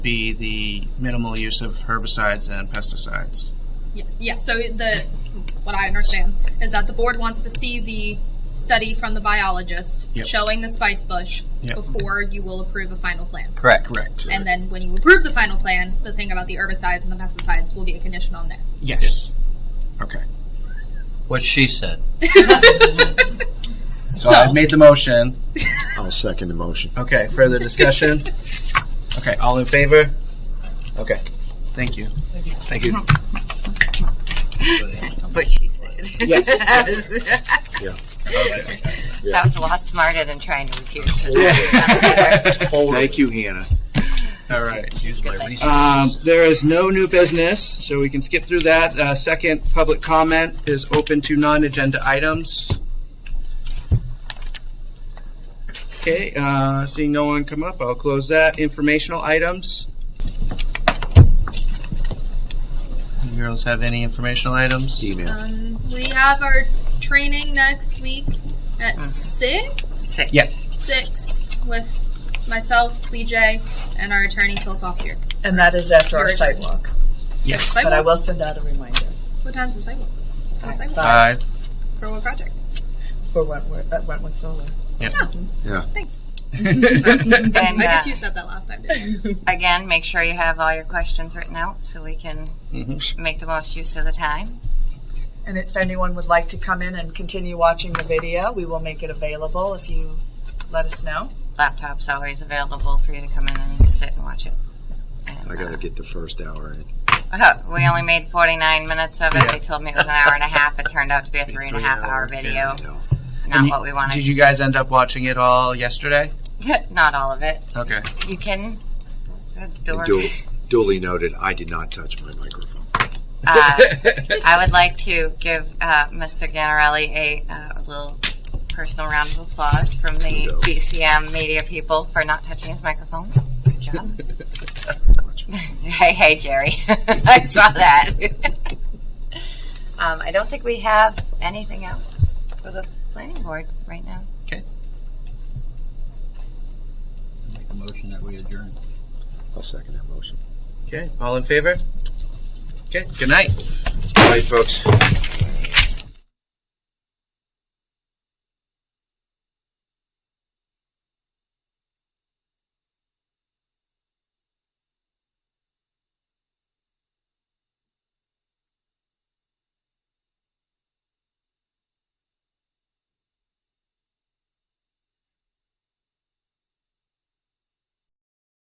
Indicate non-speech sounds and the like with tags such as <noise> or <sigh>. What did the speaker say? be the minimal use of herbicides and pesticides. Yeah, yeah, so the, what I understand is that the board wants to see the study from the biologist Yep. showing the spice bush Yep. before you will approve a final plan. Correct. Correct. And then when you approve the final plan, the thing about the herbicides and the pesticides will be a condition on there. Yes. Okay. What she said. So, I've made the motion. I'll second the motion. Okay. Further discussion? okay. All in favor? Okay. Thank you. Thank you. what she said. Yes. <laughs> that, was, Yeah. that was a lot smarter than trying to refute. <laughs> Thank you, Hannah. All right. Use my research. Um, there is no new business, so we can skip through that. Uh, second, public comment is open to non-agenda items. Okay, uh, seeing no one come up, I'll close that. Informational items. You girls have any informational items? Email. Um, we have our training next week at six, Six. Yeah. six with myself, Lee J, and our attorney Phil Saucier. And that is after our Very site good. walk. Yes. But I will send out a reminder What time's the sidewalk? What sidewalk? Uh, For what project? for Wentworth, at Wentworth Solar. And, I guess uh, you said that last time, didn't you? again, make sure you have all your questions written out so we can make the most use of the time. And if anyone would like to come in and continue watching the video, we will make it available if you let us know. Laptop's always available for you to come in and sit and watch it. And, I gotta get the first hour in. uh, we only made 49 minutes of it. Yeah. They told me it was an hour and a half. It turned out to be a three and a half hour video. Not you- what we did wanted. you guys end up watching it all yesterday? <laughs> Not all of it. Okay. You can. Dork. Du- Duly noted, I did not touch my microphone. uh, I would like to give uh, Mr. Ganarelli a uh, little personal round of applause from the Kudos. BCM media people for not touching his microphone. Good job. <laughs> much. hey, hey, Jerry. <laughs> I saw that. <laughs> um, I don't think we have anything else for the planning board right now. Make a motion that we adjourn. I'll second that motion. Okay. All in favor? Okay. Good night. All right, folks.